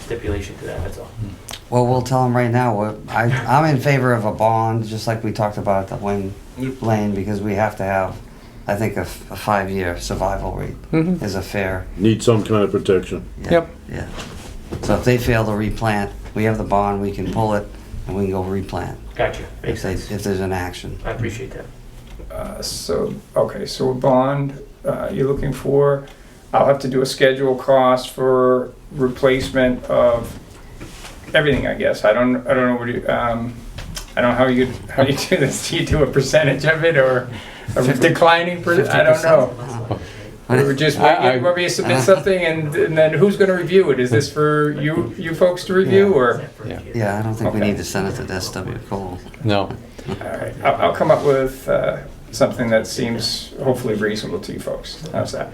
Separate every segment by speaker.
Speaker 1: stipulation to that, that's all.
Speaker 2: Well, we'll tell them right now, what- I, I'm in favor of a bond, just like we talked about at the Wayne
Speaker 3: Mm-hmm.
Speaker 4: Yep.
Speaker 2: Lane, because we have to have, I think, a, f- a five-year survival rate
Speaker 5: Mhm.
Speaker 2: is a fair.
Speaker 4: Need some kind of protection.
Speaker 2: yeah,
Speaker 5: Yep.
Speaker 2: Yeah. So if they fail to replant, we have the bond, we can pull it, and we can go replant,
Speaker 1: Gotcha,
Speaker 2: if
Speaker 1: makes
Speaker 2: they,
Speaker 1: sense.
Speaker 2: if there's an action.
Speaker 1: I appreciate that.
Speaker 3: Uh, So, okay, so a bond, uh, you're looking for, I'll have to do a schedule cost for replacement of everything, I guess. I don't, I don't know what you, um, I don't know how you, how you do this. Do you do a percentage of it or a declining, per- I don't know. We were just,
Speaker 5: I- uh, I-
Speaker 3: where you submit something and and then who's gonna review it? Is this for you, you folks to review or?
Speaker 5: Yeah.
Speaker 2: Yeah, I don't think we
Speaker 3: Okay.
Speaker 2: need to send it to SW Cole.
Speaker 5: No.
Speaker 3: All right, I'll, I'll come up with uh, something that seems hopefully reasonable to you folks. How's that?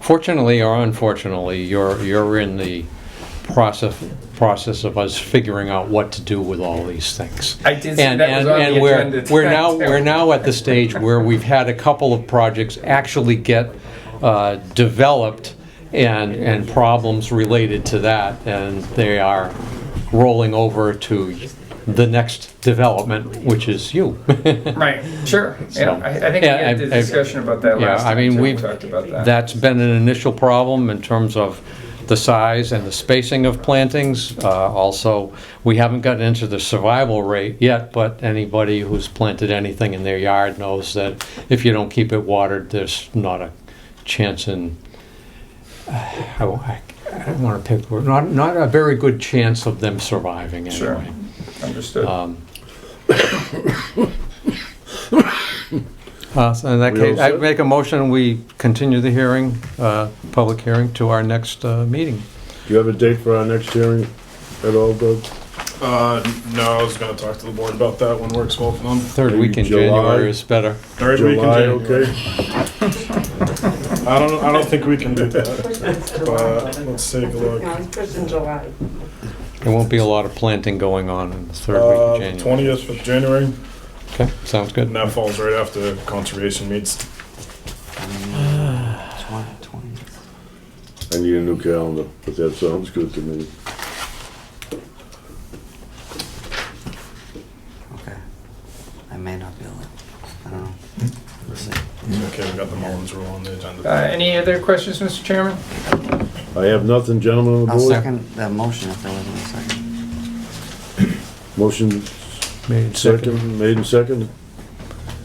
Speaker 5: Fortunately or unfortunately, you're, you're in the process, process of us figuring out what to do with all these things.
Speaker 3: I did see
Speaker 5: And,
Speaker 3: that was
Speaker 5: and,
Speaker 3: on the
Speaker 5: and we're,
Speaker 3: agenda
Speaker 5: we're
Speaker 3: tonight,
Speaker 5: now,
Speaker 3: too.
Speaker 5: we're now at the stage where we've had a couple of projects actually get uh, developed and, and problems related to that, and they are rolling over to the next development, which is you.
Speaker 3: Right, sure. Yeah,
Speaker 5: So-
Speaker 3: I, I think we
Speaker 5: Yeah,
Speaker 3: had
Speaker 5: I-
Speaker 3: the
Speaker 5: I-
Speaker 3: discussion about that
Speaker 5: Yeah,
Speaker 3: last
Speaker 5: I
Speaker 3: time,
Speaker 5: mean,
Speaker 3: too. We
Speaker 5: we've,
Speaker 3: talked about that.
Speaker 5: that's been an initial problem in terms of the size and the spacing of plantings. Uh, Also, we haven't gotten into the survival rate yet, but anybody who's planted anything in their yard knows that if you don't keep it watered, there's not a chance in, uh, I I don't want to pick, not, not a very good chance of them surviving
Speaker 3: Sure.
Speaker 5: anyway.
Speaker 3: Understood.
Speaker 5: Um, uh, so In that
Speaker 4: We all
Speaker 5: case, I
Speaker 4: set?
Speaker 5: make a motion, we continue the hearing, uh, public hearing, to our next uh, meeting.
Speaker 4: Do you have a date for our next hearing at all, Doug?
Speaker 6: Uh, no, I was gonna talk to the board about that when works well for them.
Speaker 5: Third
Speaker 4: Maybe
Speaker 5: week in
Speaker 4: July?
Speaker 5: January is better.
Speaker 6: Third week in
Speaker 4: July,
Speaker 6: January.
Speaker 4: okay?
Speaker 6: I don't, I don't think we can do that, but let's take a look.
Speaker 7: No, it's first in July.
Speaker 5: There won't be a lot of planting going on in the third
Speaker 6: Uh,
Speaker 5: week in January.
Speaker 6: twentieth of January,
Speaker 5: Okay, sounds
Speaker 6: and
Speaker 5: good.
Speaker 6: that falls right after conservation meets.
Speaker 2: Twenty- Um, twenty.
Speaker 4: I need a new calendar, but that sounds good to me.
Speaker 2: Okay. I may not be able to, I don't know. We'll see.
Speaker 3: Mm-hmm.
Speaker 6: Okay, we got the Mullins rule on the
Speaker 3: Uh,
Speaker 6: agenda.
Speaker 3: any other questions, Mr. Chairman?
Speaker 4: I have nothing, gentlemen on the
Speaker 2: I'll
Speaker 4: board.
Speaker 2: second that motion if there wasn't a second.
Speaker 4: Motion
Speaker 5: Made second.
Speaker 4: second, made and second.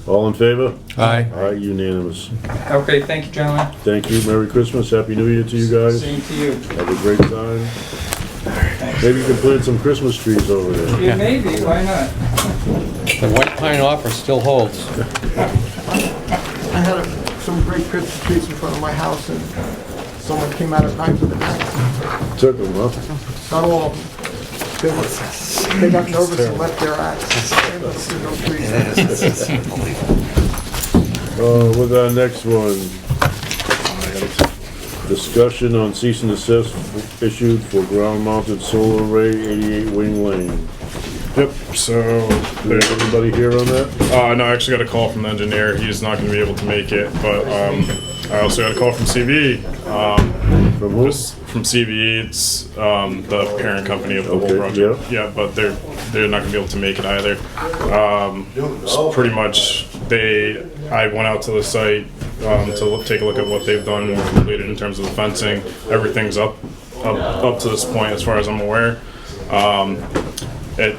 Speaker 4: All in favor?
Speaker 5: Aye.
Speaker 4: Aye, unanimous.
Speaker 3: Okay, thank you, gentlemen.
Speaker 4: Thank you, Merry Christmas, Happy New Year to you guys.
Speaker 3: Same to you.
Speaker 4: Have a great time. Maybe you can plant some Christmas trees over there.
Speaker 3: Yeah, maybe, why not?
Speaker 5: The white pine offer still holds.
Speaker 8: I had a- some great Christmas trees in front of my house, and someone came out at night with an axe.
Speaker 4: Took them, huh?
Speaker 8: Not all of them. They were, they got nervous and left their axe. There must be no trees.
Speaker 4: Uh, with our next one. Discussion on cease and desist issued for ground mounted solar array eighty-eight Wing Lane.
Speaker 6: Yep, so,
Speaker 4: Do we have anybody here on that?
Speaker 6: uh, no, I actually got a call from the engineer. He's not gonna be able to make it, but, um, I also got a call from CVE. Um,
Speaker 4: From who?
Speaker 6: This- from CVE, it's um, the parent company of the whole
Speaker 4: Okay,
Speaker 6: project. Yeah. but they're they're not gonna be able to make it either. Um, it's pretty much, they I went out to the site um, to look, take a look at what they've done, what completed in terms of the fencing. Everything's up up up to this point, as far as I'm aware. Um, it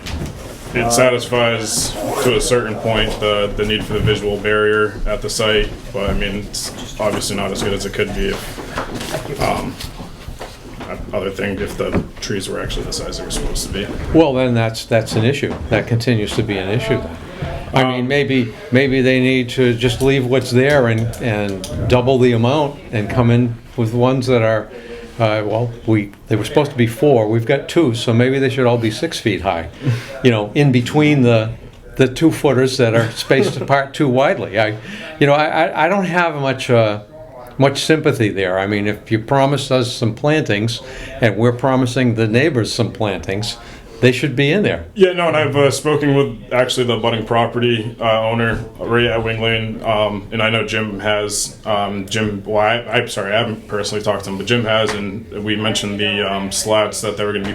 Speaker 6: it satisfies to a certain point the the need for the visual barrier at the site, but I mean it's obviously not as good as it could be if um, other thing if the trees were actually the size they were supposed to be.
Speaker 5: Well, then that's, that's an issue. That continues to be an issue then. I mean, maybe, maybe they need to just leave what's there and, and double the amount and come in with ones that are, uh, well, we, they were supposed to be four, we've got two, so maybe they should all be six feet high. You know, in between the, the two footers that are spaced apart too widely. I, you know, I, I- I don't have much, uh, much sympathy there. I mean, if you promised us some plantings, and we're promising the neighbors some plantings, they should be in there.
Speaker 6: Yeah, no, and I've uh, spoken with actually the budding property uh, owner Ray at Wing Lane, um, and I know Jim has um, Jim. Well, I, I'm sorry, I haven't personally talked to him, but Jim has, and we mentioned the um, slats that they were going to be